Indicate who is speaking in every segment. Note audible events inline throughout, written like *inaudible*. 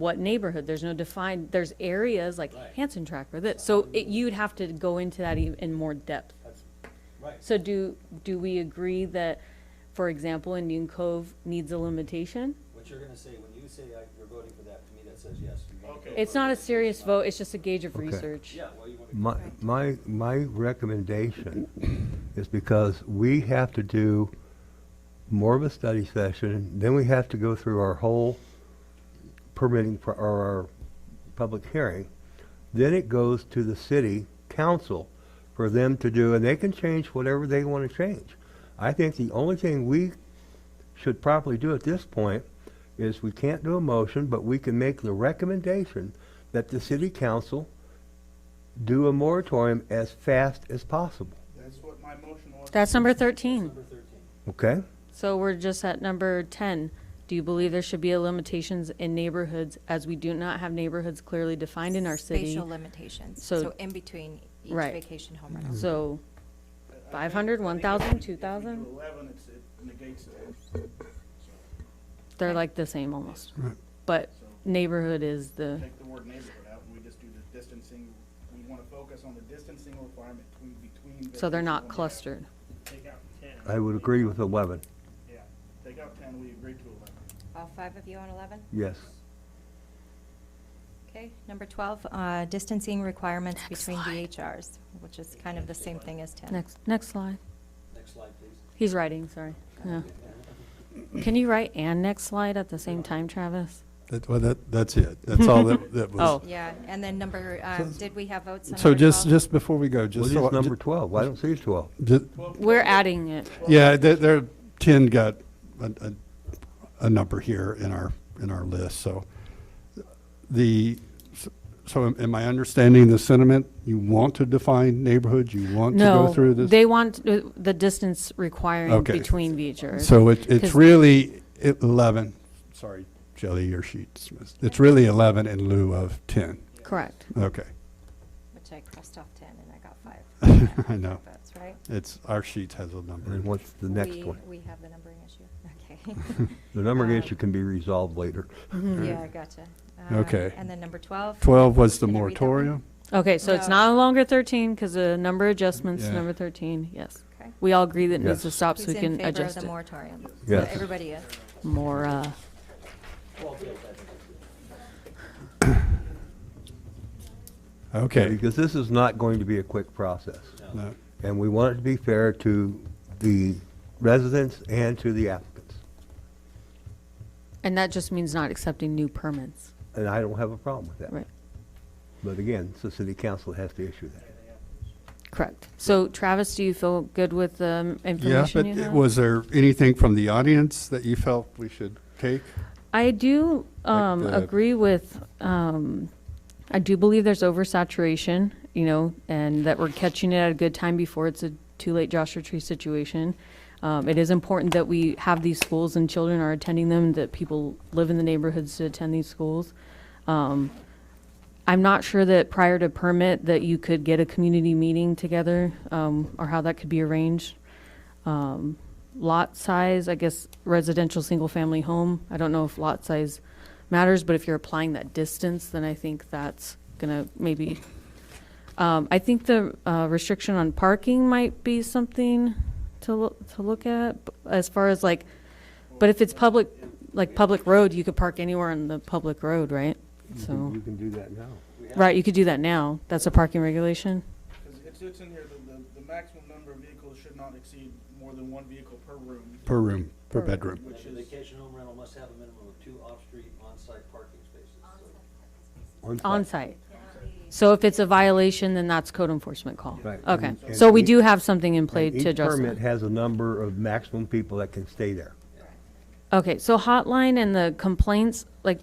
Speaker 1: what neighborhood, there's no defined, there's areas like
Speaker 2: Right.
Speaker 1: Hanson Track or this, so it, you'd have to go into that e- in more depth.
Speaker 2: That's right.
Speaker 1: So do, do we agree that, for example, Indian Cove needs a limitation?
Speaker 2: What you're gonna say, when you say uh, you're voting for that, to me, that says yes. you wanna
Speaker 3: Okay.
Speaker 2: go
Speaker 1: It's
Speaker 2: for
Speaker 1: not a
Speaker 2: it.
Speaker 1: serious
Speaker 2: It's
Speaker 1: vote,
Speaker 2: not.
Speaker 1: it's just a gauge of
Speaker 4: Okay.
Speaker 1: research.
Speaker 2: Yeah, well, you wanna.
Speaker 4: My, my, my recommendation is because we have to do more of a study session, then we have to go through our whole permitting, pro- or our public hearing. Then it goes to the city council for them to do, and they can change whatever they want to change. I think the only thing we should properly do at this point is we can't do a motion, but we can make the recommendation that the city council do a moratorium as fast as possible,
Speaker 3: That's what my motion was.
Speaker 1: That's number thirteen.
Speaker 2: Number thirteen.
Speaker 4: okay?
Speaker 1: So we're just at number ten. Do you believe there should be a limitations in neighborhoods as we do not have neighborhoods clearly defined in our city?
Speaker 5: Spatial limitations,
Speaker 1: So-
Speaker 5: so in between each
Speaker 1: Right.
Speaker 5: vacation home rental.
Speaker 1: So,
Speaker 3: I think-
Speaker 1: 500,
Speaker 3: I think if
Speaker 1: 1,000,
Speaker 3: we- if we do
Speaker 1: 2,000?
Speaker 3: Eleven, it's, it negates that.
Speaker 1: they're like the same almost. But neighborhood is the,
Speaker 3: Take the word neighborhood out and we just do the distancing. We want to focus on the distancing requirement between, between.
Speaker 1: so they're
Speaker 3: vacation
Speaker 1: not
Speaker 3: homes.
Speaker 1: clustered.
Speaker 3: Take out ten.
Speaker 4: I would agree with eleven,
Speaker 3: Yeah, take out ten, we agreed to eleven.
Speaker 5: All five of you on 11?
Speaker 4: yes.
Speaker 5: Okay, number 12, uh, distancing requirements between DHRs, which is kind of the same thing as 10.
Speaker 1: Next, next slide.
Speaker 2: Next slide, please.
Speaker 1: He's writing, sorry. Yeah. Can you write and next slide at the same time, Travis?
Speaker 6: That, well, that, that's it. That's
Speaker 1: *laughs*
Speaker 6: all that, that
Speaker 1: Oh.
Speaker 6: was.
Speaker 5: Yeah, and then number, uh, did we have votes on
Speaker 6: So
Speaker 5: number
Speaker 6: just,
Speaker 5: 12?
Speaker 6: just before we go,
Speaker 4: What
Speaker 6: just
Speaker 4: is
Speaker 6: so. I-
Speaker 4: number
Speaker 6: ju-
Speaker 4: twelve? I don't see twelve.
Speaker 6: ju-
Speaker 1: We're adding it.
Speaker 6: Yeah, there, there, ten got a, a, a number here in our, in our list, so. The, so am- am I understanding the sentiment? You want to define neighborhoods, you want to go
Speaker 1: No,
Speaker 6: through this?
Speaker 1: they want uh, the distance requiring
Speaker 6: Okay.
Speaker 1: between VHRs.
Speaker 6: So it, it's
Speaker 1: 'Cause-
Speaker 6: really eleven, sorry, Shelley, your sheets, missed. it's really eleven in lieu of ten,
Speaker 1: Correct.
Speaker 6: okay. *laughs*
Speaker 5: Which I crossed off 10 and I got
Speaker 6: *laughs*
Speaker 5: five.
Speaker 6: I know.
Speaker 5: Votes, right?
Speaker 6: It's, our sheet has a number.
Speaker 4: And what's the next
Speaker 5: We-
Speaker 4: one?
Speaker 5: We have the numbering issue, okay. *laughs*
Speaker 4: The numbering
Speaker 5: um,
Speaker 4: issue can be resolved later.
Speaker 5: Yeah, gotcha. Uh,
Speaker 6: Okay.
Speaker 5: And then number 12?
Speaker 6: 12 was the
Speaker 5: Can I read that one?
Speaker 6: moratorium?
Speaker 1: Okay, so it's
Speaker 5: No.
Speaker 1: not no longer thirteen because the number adjustments,
Speaker 6: Yeah.
Speaker 1: number thirteen, yes.
Speaker 5: Okay.
Speaker 1: We all agree that it needs to
Speaker 4: Yes.
Speaker 1: stop so we
Speaker 5: Who's in
Speaker 1: can
Speaker 5: favor of
Speaker 1: adjust
Speaker 5: the
Speaker 1: it.
Speaker 5: moratorium?
Speaker 4: Yes.
Speaker 5: Everybody is.
Speaker 1: More, uh,
Speaker 6: Okay.
Speaker 4: Because this is not going to be a quick process.
Speaker 6: No.
Speaker 4: And we want it to be fair to the residents and to the applicants.
Speaker 1: and that just means not accepting new permits,
Speaker 4: And I don't have a problem with that.
Speaker 1: right?
Speaker 4: But again, it's the city council that has to issue that.
Speaker 1: Correct. So Travis, do you feel good with the
Speaker 6: Yeah, but
Speaker 1: information you have?
Speaker 6: was there anything from the audience that you felt we should take?
Speaker 1: I do um,
Speaker 6: the-
Speaker 1: agree with. Um, I do believe there's oversaturation, you know, and that we're catching it at a good time before it's a too late Joshua Tree situation. Um, it is important that we have these schools and children are attending them, that people live in the neighborhoods to attend these schools. Um, I'm not sure that prior to permit that you could get a community meeting together um, or how that could be arranged. Um, lot size, I guess residential single-family home, I don't know if lot size matters, but if you're applying that distance, then I think that's gonna maybe, um, I think the, uh, restriction on parking might be something to loo- to look at, b- as far as like, but if it's public, like public road, you could park anywhere on the public road, right? So,
Speaker 4: You can do that now.
Speaker 1: right, you could do that now, that's a parking regulation,
Speaker 3: Because it's, it's in here, the, the, the maximum number of vehicles should not exceed more than one vehicle per room,
Speaker 6: Per room, per bedroom.
Speaker 2: And the vacation home rental must have a minimum of two off-street on-site parking spaces. So
Speaker 4: On-site.
Speaker 1: on-site. So if it's a violation, then that's code enforcement call?
Speaker 4: Right.
Speaker 1: Okay,
Speaker 4: And-
Speaker 1: so
Speaker 4: and
Speaker 1: we
Speaker 4: each-
Speaker 1: do have something in play
Speaker 4: Right,
Speaker 1: to address
Speaker 4: Each permit
Speaker 1: that.
Speaker 4: has a number of maximum people that can stay there.
Speaker 1: Okay, so hotline and the complaints, like,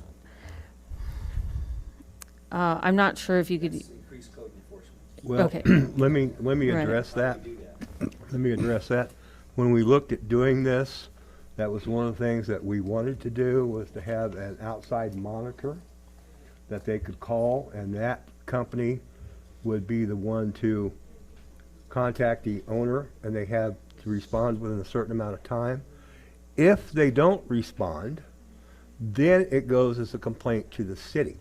Speaker 1: uh, I'm not sure if you could,
Speaker 2: It's increased code enforcement.
Speaker 4: Well,
Speaker 1: Okay.
Speaker 4: *clears throat* let me, let me
Speaker 1: Right.
Speaker 4: address that.
Speaker 2: Do that.
Speaker 4: Let me address that. When we looked at doing this, that was one of the things that we wanted to do, was to have an outside monitor that they could call, and that company would be the one to contact the owner, and they have to respond within a certain amount of time. If they don't respond, Then it goes as a complaint to the city.